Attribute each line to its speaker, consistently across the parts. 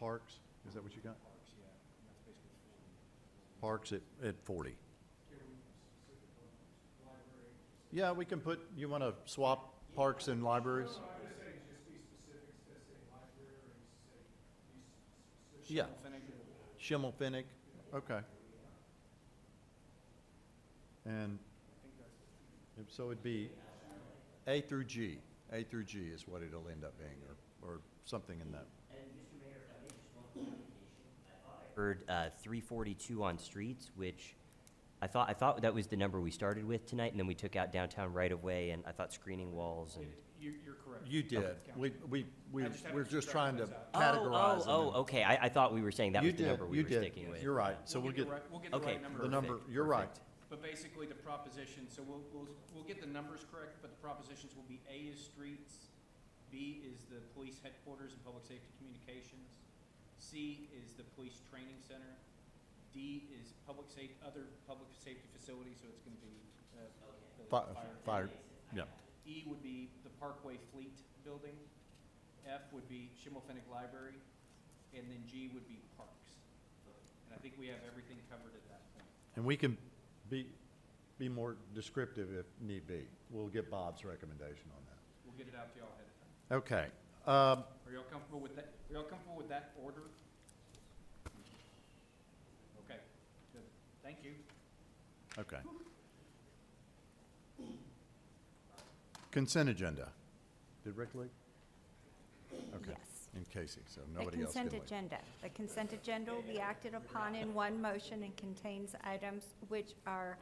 Speaker 1: Parks, is that what you got? Parks at, at forty. Yeah, we can put, you wanna swap parks and libraries? Yeah. Schimmelfennig, okay. And, if- so it'd be A through G, A through G is what it'll end up being, or, or something in that.
Speaker 2: heard uh, 342 on streets, which I thought, I thought that was the number we started with tonight, and then we took out downtown right-of-way, and I thought screening walls and.
Speaker 3: You're, you're correct.
Speaker 1: You did, we, we, we,
Speaker 3: I just haven't
Speaker 1: we're just trying to
Speaker 2: Oh,
Speaker 1: categorize them.
Speaker 2: Oh, oh, okay, I, I thought we were saying that
Speaker 1: You
Speaker 2: was the
Speaker 1: did,
Speaker 2: number we
Speaker 1: you
Speaker 2: were
Speaker 1: did.
Speaker 2: sticking with.
Speaker 1: You're right, so we'll
Speaker 3: We'll get
Speaker 1: get,
Speaker 3: the right, we'll get the
Speaker 2: Okay,
Speaker 3: right
Speaker 1: the
Speaker 3: number.
Speaker 1: number-
Speaker 2: perfect,
Speaker 1: you're right.
Speaker 2: perfect.
Speaker 3: But basically, the proposition, so we'll, we'll, we'll get the numbers correct, but the propositions will be A is streets, B is the police headquarters and public safety communications, C is the police training center, D is public safe, other public safety facilities, so it's gonna be, uh, the
Speaker 1: fi- fire,
Speaker 3: fire.
Speaker 1: yeah,
Speaker 3: E would be the Parkway Fleet Building, F would be Schimmelfennig Library, and then G would be Parks. And I think we have everything covered at that point.
Speaker 1: and we can be, be more descriptive if need be. We'll get Bob's recommendation on that.
Speaker 3: We'll get it out to y'all ahead of time.
Speaker 1: Okay, um,
Speaker 3: Are y'all comfortable with that, are y'all comfortable with that order? Okay, good, thank you.
Speaker 1: Okay. Consent agenda. Did Rick leave? Okay.
Speaker 4: Yes.
Speaker 1: And Casey, so
Speaker 4: The
Speaker 1: nobody else can
Speaker 4: consent
Speaker 1: leave.
Speaker 4: agenda. The consent agenda will be acted upon in one motion and contains items which are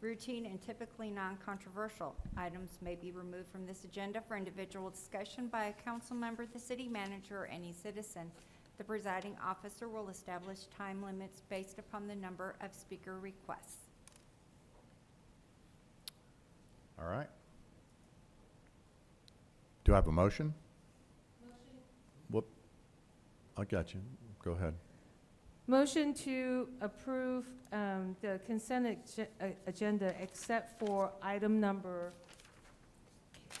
Speaker 4: routine and typically non-controversial. Items may be removed from this agenda for individual discussion by a council member, the city manager, or any citizen. The presiding officer will establish time limits based upon the number of speaker requests.
Speaker 1: All right. Do I have a motion? Motion. Whoop. I got you. Go ahead.
Speaker 5: Motion to approve um, the consent ag- uh, agenda except for item number,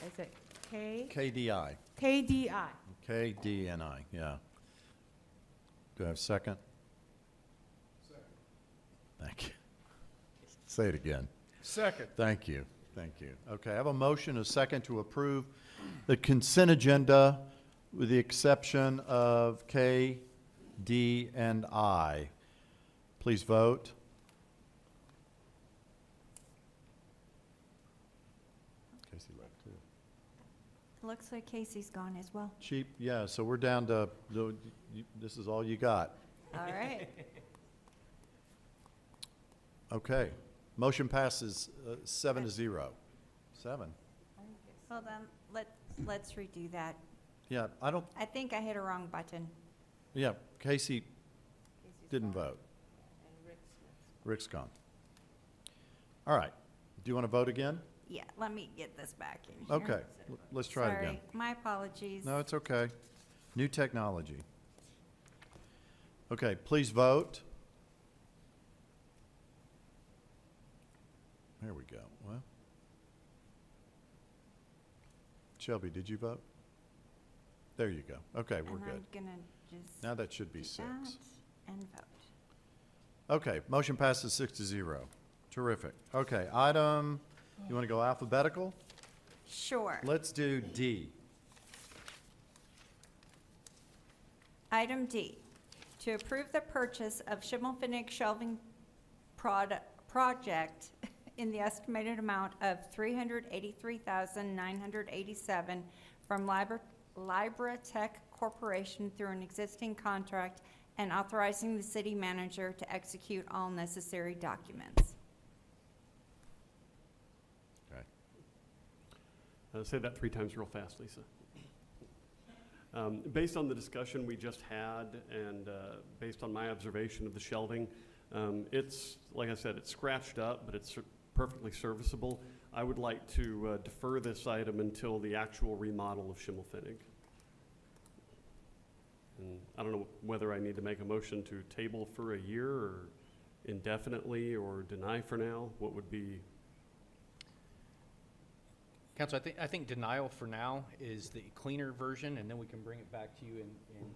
Speaker 5: is it K?
Speaker 1: KDI,
Speaker 5: KDI.
Speaker 1: KDNI, yeah. Do I have a second? Second. Thank you. Say it again.
Speaker 6: Second.
Speaker 1: Thank you, thank you. Okay, I have a motion, a second to approve the consent agenda with the exception of K, D, and I. Please vote. Casey left too.
Speaker 4: Looks like Casey's gone as well.
Speaker 1: Cheap, yeah, so we're down to, the- you- this is all you got.
Speaker 4: All right.
Speaker 1: Okay, motion passes uh, seven to zero. Seven,
Speaker 4: Hold on, let, let's redo that.
Speaker 1: yeah, I don't,
Speaker 4: I think I hit a wrong button.
Speaker 1: yeah, Casey didn't vote. Rick's gone. All right. Do you want to vote again?
Speaker 4: Yeah, let me get this back in here.
Speaker 1: Okay, l- let's try it again.
Speaker 4: Sorry, my apologies.
Speaker 1: No, it's okay. New technology. Okay, please vote. There we go. Well. Shelby, did you vote? There you go. Okay, we're good.
Speaker 4: And I'm gonna just
Speaker 1: Now that should be
Speaker 4: do
Speaker 1: six.
Speaker 4: that and vote.
Speaker 1: Okay, motion passes six to zero. Terrific. Okay, item, you want to go alphabetical?
Speaker 4: Sure.
Speaker 1: Let's do D.
Speaker 4: Item D, to approve the purchase of Schimmelfennig shelving product, project in the estimated amount of three hundred eighty-three thousand nine hundred eighty-seven from Libra, Libra Tech Corporation through an existing contract and authorizing the city manager to execute all necessary documents.
Speaker 1: Okay.
Speaker 7: Uh, Say that three times real fast, Lisa. Um, Based on the discussion we just had and uh, based on my observation of the shelving, um, it's, like I said, it's scratched up, but it's ser- perfectly serviceable. I would like to uh, defer this item until the actual remodel of Schimmelfinnig. And I don't know whether I need to make a motion to table for a year or indefinitely or deny for now. What would be
Speaker 6: Council, I think, I think denial for now is the cleaner version, and then we can bring it back to you in, in